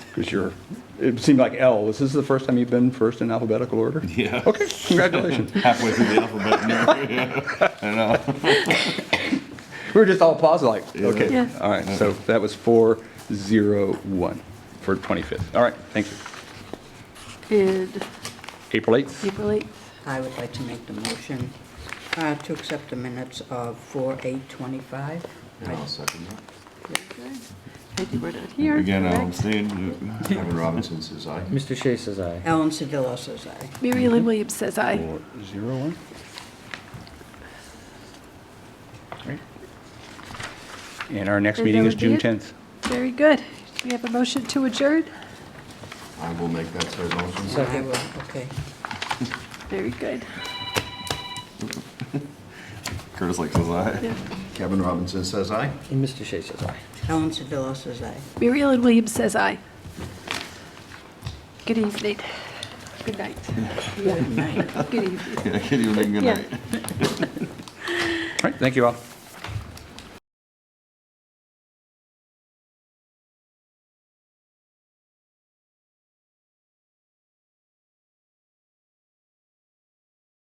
Because you're, it seemed like L, is this the first time you've been first in alphabetical order? Yeah. Okay, congratulations. halfway through the alphabet. Mary. Yeah, I know. We were just all paused like, okay, Yeah. all right, so that was 401 for 25th. All right, thank you. Good. April 8th, April 8th. I would like to make the motion uh, to accept the minutes of 4/8/25. I'll second that. Very good. Thank you, we're not here. Again, um, I'll correct? abstain. Kevin Robinson says aye. Mr. Shea says aye. Ellen Sedillo says aye. Mary Lynn Williams says aye. 401. Great. And our next And meeting that is would be June it? 10th. Very good. Do we have a motion to adjourn? I will make that third motion. And I will, okay. Very good. Curtis Lake says aye. Yeah. Kevin Robinson says aye. And Mr. Shea says aye. Ellen Sedillo says aye. Mary Lynn Williams says aye. Good evening. Good night. Good night. Good evening. Yeah, I can't even make a good Yeah. night. All right, thank you all.